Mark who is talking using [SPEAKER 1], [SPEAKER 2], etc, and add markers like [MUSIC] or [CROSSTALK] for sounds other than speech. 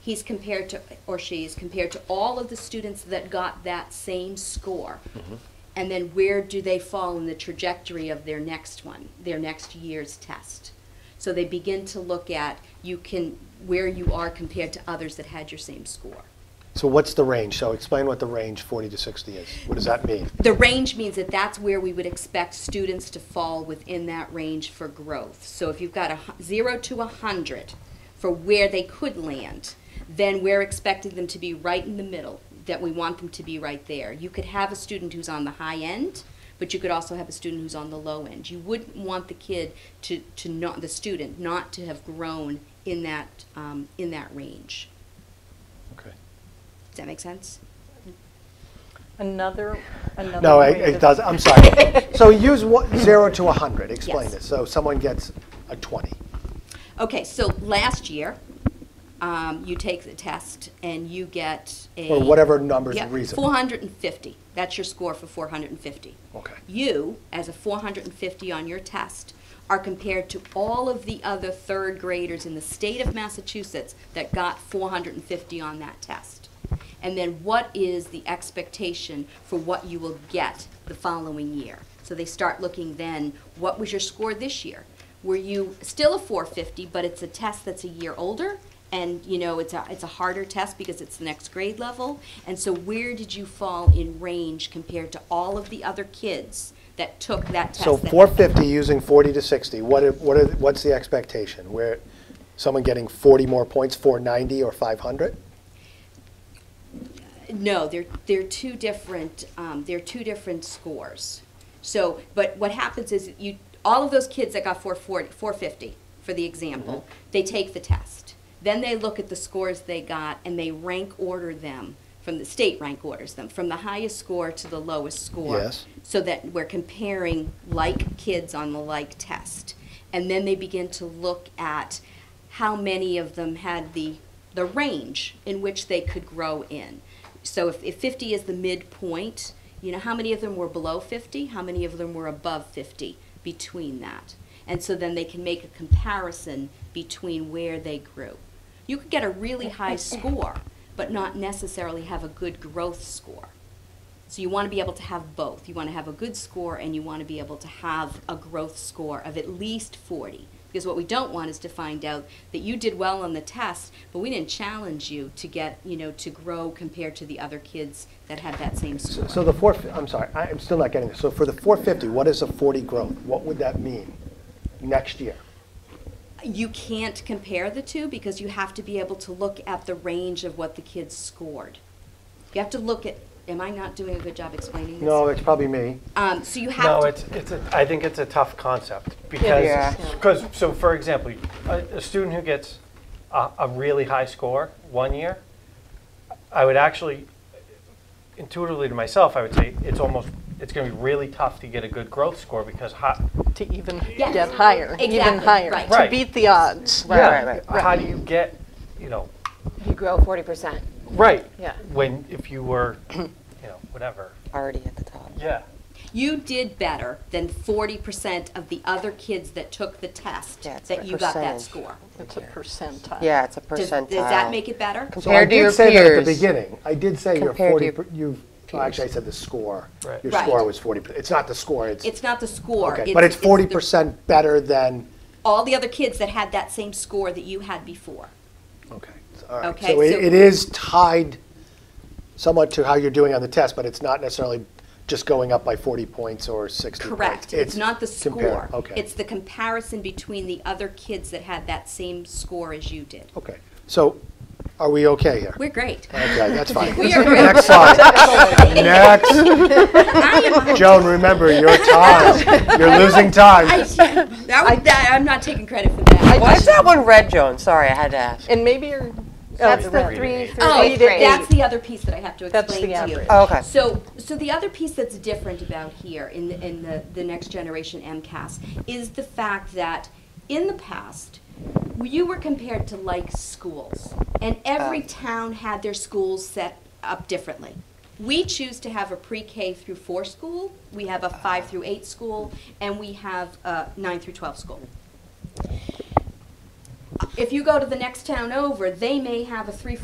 [SPEAKER 1] he's compared to, or she is compared to all of the students that got that same score. And then where do they fall in the trajectory of their next one, their next year's test? So they begin to look at, you can, where you are compared to others that had your same score.
[SPEAKER 2] So what's the range? So explain what the range 40 to 60 is. What does that mean?
[SPEAKER 1] The range means that that's where we would expect students to fall within that range for growth. So if you've got a hu- zero to a hundred for where they could land, then we're expecting them to be right in the middle, that we want them to be right there. You could have a student who's on the high end, but you could also have a student who's on the low end. You wouldn't want the kid to, to not, the student not to have grown in that, um, in that range.
[SPEAKER 2] Okay.
[SPEAKER 1] Does that make sense?
[SPEAKER 3] Another, another.
[SPEAKER 2] No,
[SPEAKER 3] way
[SPEAKER 2] it, it
[SPEAKER 3] to-
[SPEAKER 2] does, I'm sorry. So use what, zero to 100, explain
[SPEAKER 1] Yes.
[SPEAKER 2] this. So someone gets a 20.
[SPEAKER 1] Okay, so last year, um, you take the test and you get a.
[SPEAKER 2] Or whatever number's
[SPEAKER 1] Yeah,
[SPEAKER 2] reasonable.
[SPEAKER 1] 450. That's your score for 450.
[SPEAKER 2] Okay.
[SPEAKER 1] You, as a 450 on your test, are compared to all of the other third graders in the state of Massachusetts that got 450 on that test. And then what is the expectation for what you will get the following year? So they start looking then, what was your score this year? Were you still a 450, but it's a test that's a year older? And, you know, it's a, it's a harder test because it's the next grade level. And so where did you fall in range compared to all of the other kids that took that test?
[SPEAKER 2] So
[SPEAKER 1] that-
[SPEAKER 2] 450 using 40 to 60, what, are- what are, what's the expectation? Where, someone getting 40 more points, 490 or 500?
[SPEAKER 1] No, they're, they're two different, um, they're two different scores. So, but what happens is you, all of those kids that got 440, 450 for the example,
[SPEAKER 2] Mm-hmm.
[SPEAKER 1] they take the test. Then they look at the scores they got and they rank order them from the state rank orders them from the highest score to the lowest score.
[SPEAKER 2] Yes.
[SPEAKER 1] So that we're comparing like kids on the like test. And then they begin to look at how many of them had the, the range in which they could grow in. So if, if 50 is the midpoint, you know, how many of them were below 50? How many of them were above 50 between that? And so then they can make a comparison between where they grew. You could get a really high score, but not necessarily have a good growth score. So you want to be able to have both. You want to have a good score and you want to be able to have a growth score of at least 40. Because what we don't want is to find out that you did well on the test, but we didn't challenge you to get, you know, to grow compared to the other kids that had that same score.
[SPEAKER 2] So the 4, I'm sorry, I- I'm still not getting this. So for the 450, what is a 40 growth? What would that mean next year?
[SPEAKER 1] you can't compare the two because you have to be able to look at the range of what the kids scored. You have to look at, am I not doing a good job explaining this?
[SPEAKER 2] No, it's probably me.
[SPEAKER 1] Um, so you have
[SPEAKER 4] No,
[SPEAKER 1] to.
[SPEAKER 4] it's, it's, a- I think it's a tough concept because, because, so for example, a, a student who gets a, a really high score one year, I would actually, intuitively to myself, I would say it's almost, it's going to be really tough to get a good growth score because how,
[SPEAKER 3] To even
[SPEAKER 1] Yes.
[SPEAKER 3] get higher, even
[SPEAKER 1] Exactly,
[SPEAKER 3] higher,
[SPEAKER 1] right.
[SPEAKER 3] to
[SPEAKER 4] Right.
[SPEAKER 3] beat the odds.
[SPEAKER 5] Right, right, right.
[SPEAKER 4] how do you get, you know,
[SPEAKER 5] You grow 40%
[SPEAKER 4] right?
[SPEAKER 3] Yeah.
[SPEAKER 4] When, if you were, you know, whatever.
[SPEAKER 5] already at the top.
[SPEAKER 4] Yeah.
[SPEAKER 1] you did better than 40% of the other kids that took the test
[SPEAKER 5] Yeah, it's
[SPEAKER 1] that
[SPEAKER 5] a
[SPEAKER 1] you got that
[SPEAKER 5] percentage.
[SPEAKER 1] score.
[SPEAKER 3] It's a percentile.
[SPEAKER 5] Yeah, it's a
[SPEAKER 1] Does,
[SPEAKER 5] percentile.
[SPEAKER 1] does that make it better?
[SPEAKER 2] So I
[SPEAKER 5] Compared to your
[SPEAKER 2] did say that at the
[SPEAKER 5] peers.
[SPEAKER 2] beginning. I did say your
[SPEAKER 5] Compared
[SPEAKER 2] 40,
[SPEAKER 5] to your
[SPEAKER 2] per- you've, well, actually, I said the score.
[SPEAKER 4] Right.
[SPEAKER 2] Your
[SPEAKER 1] Right.
[SPEAKER 2] score was 40, per- it's not the score, it's,
[SPEAKER 1] It's not the score.
[SPEAKER 2] okay. But it's
[SPEAKER 1] the-
[SPEAKER 2] 40% better than,
[SPEAKER 1] all the other kids that had that same score that you had before.
[SPEAKER 2] okay. all right.
[SPEAKER 1] Okay,
[SPEAKER 2] So
[SPEAKER 1] so-
[SPEAKER 2] it it is tied somewhat to how you're doing on the test, but it's not necessarily just going up by 40 points or 60 points.
[SPEAKER 1] Correct. It's not the
[SPEAKER 2] compare-
[SPEAKER 1] score.
[SPEAKER 2] Okay.
[SPEAKER 1] It's the comparison between the other kids that had that same score as you did.
[SPEAKER 2] Okay. So are we okay here?
[SPEAKER 1] We're great.
[SPEAKER 2] Okay, that's
[SPEAKER 1] [LAUGHS]
[SPEAKER 2] fine.
[SPEAKER 1] We are
[SPEAKER 2] [LAUGHS]
[SPEAKER 1] great.
[SPEAKER 2] Next slide.
[SPEAKER 1] [LAUGHS]
[SPEAKER 2] Next. Joan, remember your
[SPEAKER 1] [LAUGHS]
[SPEAKER 2] time. You're losing time.
[SPEAKER 1] that was, that, I'm not taking credit for that.
[SPEAKER 5] Why is that one red, Joan? Sorry, I had to ask.
[SPEAKER 3] And maybe you're.
[SPEAKER 6] That's the three through
[SPEAKER 1] Oh,
[SPEAKER 6] eighth grade.
[SPEAKER 1] that's the other piece that I have to
[SPEAKER 3] That's
[SPEAKER 1] explain to
[SPEAKER 3] the
[SPEAKER 1] you.
[SPEAKER 3] average.
[SPEAKER 5] Oh, okay.
[SPEAKER 1] So, so the other piece that's different about here in the, in the, the next generation MCAS is the fact that in the past, you were compared to like schools, and every town had their schools set up differently. We choose to have a pre-K through four school, we have a five through eight school, and we have a nine through twelve school If you go to the next town over, they may have a three,